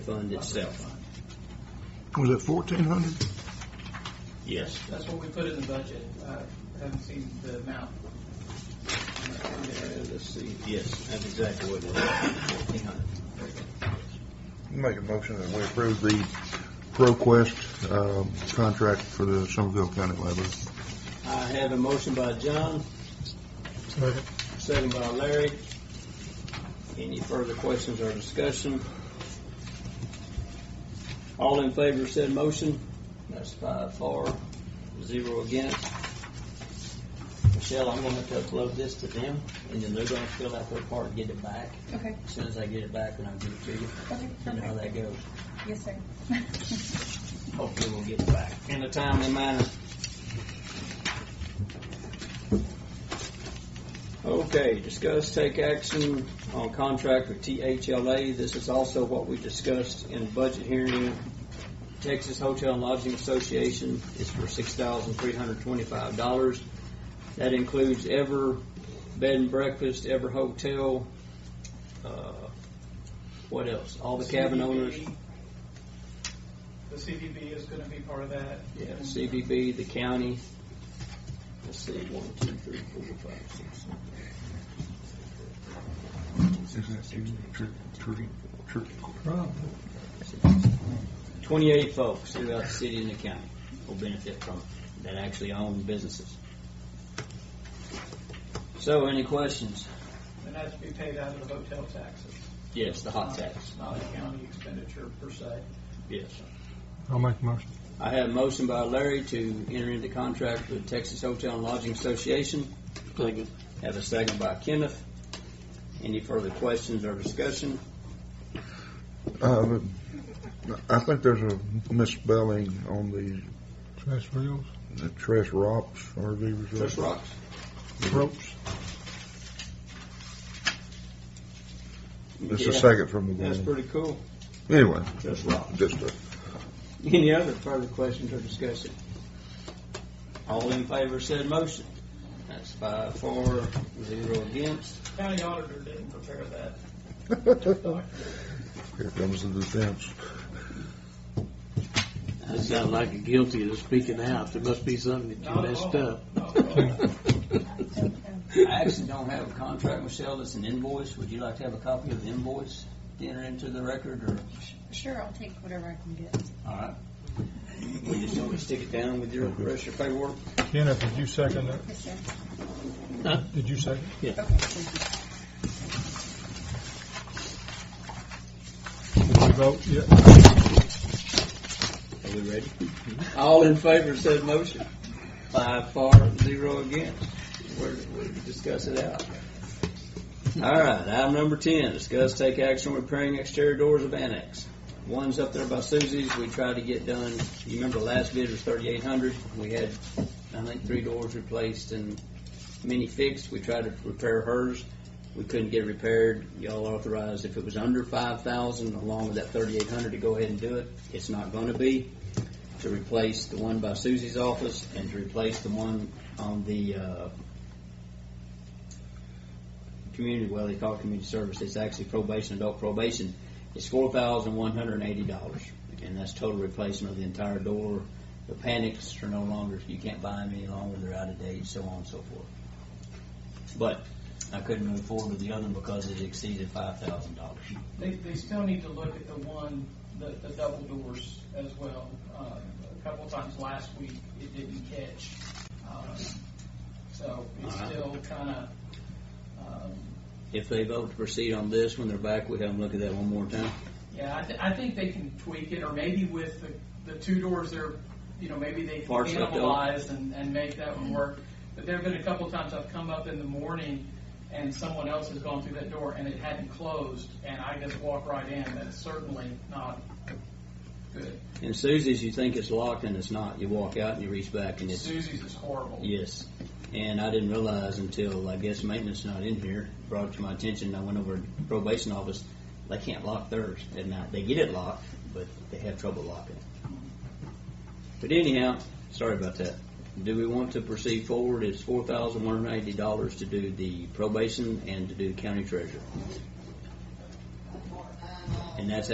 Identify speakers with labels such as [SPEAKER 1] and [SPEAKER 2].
[SPEAKER 1] fund itself.
[SPEAKER 2] Was it fourteen hundred?
[SPEAKER 1] Yes.
[SPEAKER 3] That's what we put in the budget. I haven't seen the amount.
[SPEAKER 1] Let's see, yes, that's exactly what it is, fourteen hundred.
[SPEAKER 2] Make a motion that we approve the ProQuest, um, contract for the Somerville County Library.
[SPEAKER 1] I have a motion by John, second by Larry. Any further questions or discussion? All in favor of said motion? That's five for, zero against. Michelle, I'm gonna have to upload this to them, and then they're gonna fill out their part and get it back.
[SPEAKER 4] Okay,
[SPEAKER 1] As soon as I get it back, then I'll give it to you.
[SPEAKER 4] okay,
[SPEAKER 1] You know how
[SPEAKER 4] perfect.
[SPEAKER 1] that goes.
[SPEAKER 4] Yes, sir.
[SPEAKER 1] Hopefully we'll get it back in a timely manner. Okay, discuss, take action on contract with THLA. This is also what we discussed in budget hearing. Texas Hotel and Lodging Association is for six thousand three hundred twenty-five dollars. That includes Ever Bed and Breakfast, Ever Hotel, uh, what else? All the cabin owners.
[SPEAKER 3] The CDB is going to be part of that.
[SPEAKER 1] Yeah, CVB, the county. Let's see, one, two, three, four, five, six. Twenty-eight folks throughout the city and the county will benefit from it, that actually own businesses. So, any questions?
[SPEAKER 3] And that's to be paid out of hotel taxes.
[SPEAKER 1] Yes, the hot tax,
[SPEAKER 3] Not a county expenditure per se.
[SPEAKER 1] yes.
[SPEAKER 2] I'll make a motion.
[SPEAKER 1] I have a motion by Larry to enter into contract with Texas Hotel and Lodging Association.
[SPEAKER 5] Second.
[SPEAKER 1] Have a second by Kenneth. Any further questions or discussion?
[SPEAKER 2] Uh, I think there's a misspelling on the. Trash wheels? The trash ROPS, RV resort.
[SPEAKER 1] Chris Rocks?
[SPEAKER 2] Ropes. It's the
[SPEAKER 1] Yeah,
[SPEAKER 2] second from the
[SPEAKER 1] That's
[SPEAKER 2] bottom.
[SPEAKER 1] pretty cool.
[SPEAKER 2] Anyway,
[SPEAKER 1] Chris Rocks.
[SPEAKER 2] just a.
[SPEAKER 1] Any other further questions or discussion? All in favor said motion. That's five for, zero against.
[SPEAKER 3] County auditor didn't prepare that.
[SPEAKER 2] Here comes the defense.
[SPEAKER 5] I sound like a guilty of speaking out. There must be something that you
[SPEAKER 3] Not at
[SPEAKER 5] messed
[SPEAKER 3] all.
[SPEAKER 5] up.
[SPEAKER 3] Not at all.
[SPEAKER 1] I actually don't have a contract, Michelle, that's an invoice. Would you like to have a copy of the invoice to enter into the record or?
[SPEAKER 4] Sure, I'll take whatever I can get.
[SPEAKER 1] All right. We just don't stick it down with your, rest of your paperwork.
[SPEAKER 6] Kenneth, did you second that?
[SPEAKER 4] Yes, sir.
[SPEAKER 6] Did you second?
[SPEAKER 4] Okay, thank
[SPEAKER 6] Did you vote? Yeah.
[SPEAKER 1] Are we ready? Mm-hmm. All in favor said motion. Five for, zero against. We're, we discuss it out. All right, item number ten, discuss take action on repairing exterior doors of annex. One's up there by Susie's, we tried to get done, you remember the last bid was thirty-eight hundred, we had, I think, three doors replaced and many fixed, we tried to repair hers, we couldn't get it repaired, y'all authorized if it was under five thousand, along with that thirty-eight hundred, to go ahead and do it, it's not gonna be to replace the one by Susie's office and to replace the one on the, uh, community, well, they call it community service, it's actually probation, adult probation, it's four thousand one hundred and eighty dollars. And that's total replacement of the entire door, the panics are no longer, you can't buy them any longer, they're out of date, so on and so forth. But I couldn't move forward with the other one because it exceeded five thousand dollars.
[SPEAKER 3] They, they still need to look at the one, the, the double doors as well. Uh, a couple times last week, it didn't catch. Um, So it's
[SPEAKER 1] All right.
[SPEAKER 3] still um, kind of,
[SPEAKER 1] If they vote to proceed on this, when they're back, we have them look at that one more time.
[SPEAKER 3] yeah, I, th- I think they can tweak it, or maybe with the, the two doors, they're, you know, maybe they can
[SPEAKER 1] Parts left over.
[SPEAKER 3] cannibalize and, and make that one work. But there've been a couple times I've come up in the morning and someone else has gone through that door and it hadn't closed, and I just walk right in. That's certainly not good.
[SPEAKER 1] And Susie's, you think it's locked and it's not. You walk out and you reach back and it's,
[SPEAKER 3] Susie's is horrible.
[SPEAKER 1] yes. And I didn't realize until, I guess maintenance not in here, brought it to my attention. I went over to probation office. They can't lock theirs at night. They get it locked, but they have trouble locking it. But anyhow, sorry about that. Do we want to proceed forward? It's four thousand one hundred eighty dollars to do the probation and to do county treasurer. And that's